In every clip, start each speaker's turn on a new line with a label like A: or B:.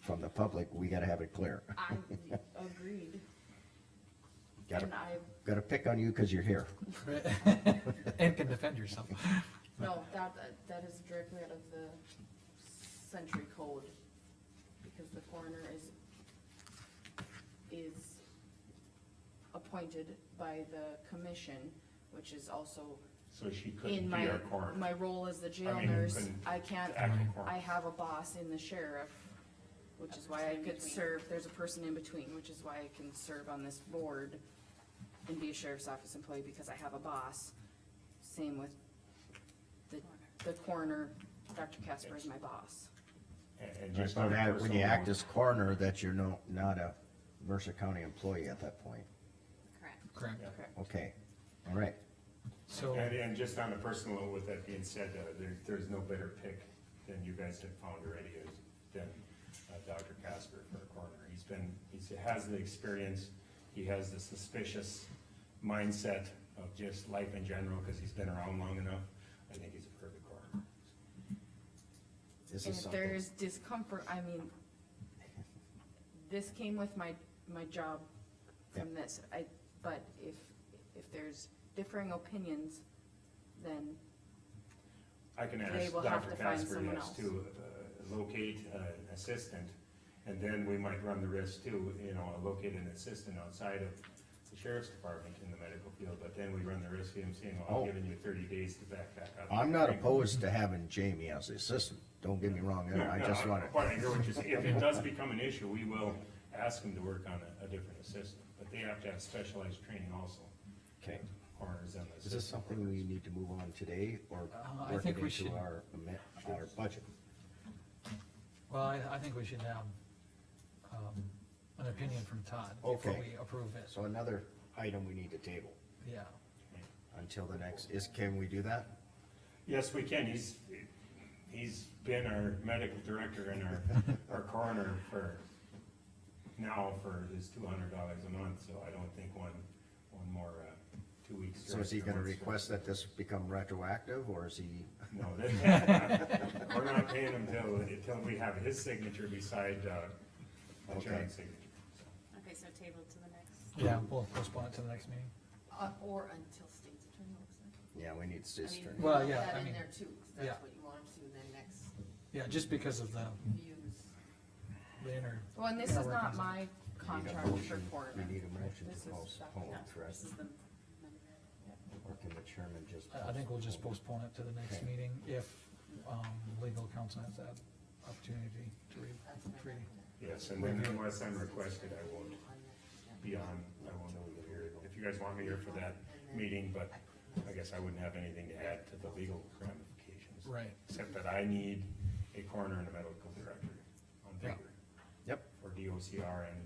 A: from the public, we gotta have it clear.
B: I agreed,
A: Gotta,
B: and I,
A: gotta pick on you because you're here.
C: And can defend yourself.
B: no, that, that is directly out of the century code, because the coroner is, is appointed by the commission, which is also
D: So she couldn't
B: in
D: be
B: my,
D: our coroner.
B: my role as the jail
D: I mean,
B: nurse,
D: couldn't
B: I can't,
D: the actual coroner.
B: I have a boss in the sheriff, which is why I could serve, there's a person in between, which is why I can serve on this board and be a sheriff's office employee because I have a boss. Same with the, the coroner, Dr. Casper is my boss.
D: And- And
A: Just
D: just on
A: don't
D: a
A: have it when you
D: personal
A: act
D: note,
A: as coroner that you're no, not a Mercer County employee at that point.
E: Correct.
C: Correct.
D: Yeah.
A: Okay, all right.
C: So,
D: And, and just on a personal note, with that being said, uh, there, there's no better pick than you guys have found already is than, uh, Dr. Casper for a coroner. He's been, he's, he has the experience, he has the suspicious mindset of just life in general, cause he's been around long enough. I think he's a perfect coroner.
A: This
B: And
A: is
B: if there
A: something,
B: is discomfort, I mean, this came with my, my job from this, I, but if, if there's differing opinions, then
D: I can
B: They
D: ask
B: will have
D: Dr.
B: to find
D: Casper,
B: someone
D: yes,
B: else.
D: to uh, locate uh, an assistant, and then we might run the risk too, you know, locate an assistant outside of the sheriff's department in the medical field, but then we run the risk of him saying, well,
A: Oh.
D: I'm giving you thirty days to back that up.
A: I'm not opposed to having Jamie as the assistant, don't get me wrong
D: No,
A: there, I
D: no,
A: just wanna,
D: But I hear what you're saying, if it does become an issue, we will ask him to work on a, a different assistant, but they have to have specialized training also,
A: okay.
D: coroners and the
A: Is this
D: assistant
A: something we need to move on today or
C: Uh, I
A: work it
C: think we should-
A: into our, ama- our budget?
C: well, I, I think we should have, um, an opinion from Todd before
A: Okay.
C: we approve it,
A: So another item we need to table
C: yeah.
A: until the next, is, can we do that?
D: Yes, we can, he's, he's been our medical director and our, our coroner for, now for his two hundred dollars a month, so I don't think one, one more, uh, two weeks.
A: So is he gonna request that this become retroactive or is he,
D: No, that, we're not paying him till, until we have his signature beside, uh, the
A: Okay.
D: giant signature.
E: Okay, so table to the next,
C: Yeah, we'll postpone it to the next meeting.
F: Uh, or until state's attorney looks at it.
A: yeah, we need
F: I
A: state's
F: mean,
A: attorney.
C: Well,
F: put
C: yeah,
F: that
C: I
F: in
C: mean,
F: there too, 'cause
C: yeah.
F: that's what you want them to, and then next
C: Yeah, just because of the,
F: views.
C: the inner,
B: Well, and this
C: Yeah,
B: is
C: we're
B: not
C: constant.
B: my
A: We need a
B: contract
A: motion-
B: report.
A: We need a motion
B: This
A: to
B: is
A: postpone,
B: Dr.
A: correct?
E: this is the,
A: Or can the chairman just?
C: I, I think we'll just postpone it to the next
A: Okay.
C: meeting if, um, legal counsel has that opportunity to read,
F: That's what I
C: reading.
D: Yes, and then unless I'm requested, I won't
F: On next, yeah.
D: be on, I won't appear, if you guys want me here for that meeting, but I guess I wouldn't have anything to add to the legal ramifications.
C: Right.
D: Except that I need a coroner and a medical director on
C: Yeah.
D: paper
A: Yep,
D: for DOCR and,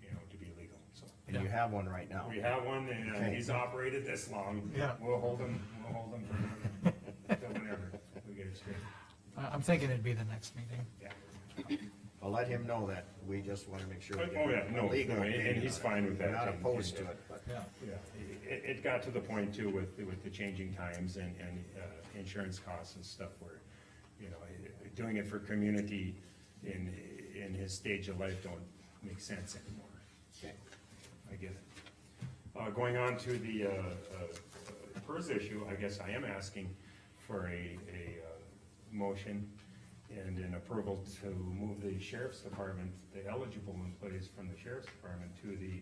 D: you know, to be legal, so.
A: and you have one right now.
D: We have one and uh,
A: Okay.
D: he's operated this long.
C: Yeah.
D: We'll hold him, we'll hold him for, till whenever we get it straight.
C: I, I'm thinking it'd be the next meeting.
D: Yeah.
A: I'll let him know that, we just wanna make sure. we
D: Oh, yeah,
A: get
D: no,
A: a legal
D: no, and- and
A: opinion
D: he's
A: on it.
D: fine with
A: We're
D: that,
A: Not
D: and-
A: opposed
D: and-
A: to it, but
C: Yeah.
D: Yeah, it, it got to the point too with, with the changing times and, and, uh, insurance costs and stuff where, you know, it- doing it for community in, in his stage of life don't make sense anymore.
A: okay.
D: I get it. Uh, going on to the, uh, uh, PERS issue, I guess I am asking for a, a, uh, motion and an approval to move the sheriff's department, the eligible employees from the sheriff's department to the,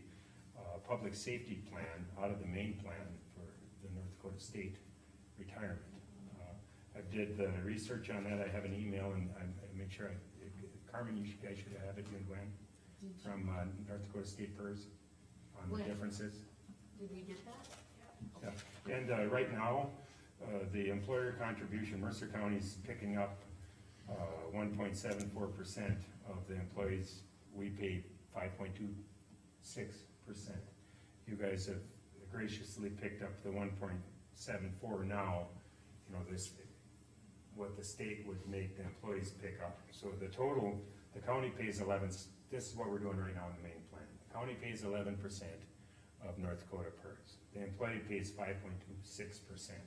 D: uh, public safety plan out of the main plan for the North Dakota State retirement. Uh, I did the research on that, I have an email and I, I make sure I, Carmen, you should- guys should have it, you and Gwen, from, uh, North Dakota State PERS on the
F: Gwen.
D: differences.
F: Did we get that?
D: Yeah. And, uh, right now, uh, the employer contribution, Mercer County's picking up, uh, one point seven four percent of the employees. We pay five point two six percent. You guys have graciously picked up the one point seven four now, you know, this, what the state would make the employees pick up. So the total, the county pays eleven, this is what we're doing right now in the main plan. The county pays eleven percent of North Dakota PERS. The employee pays five point two six percent.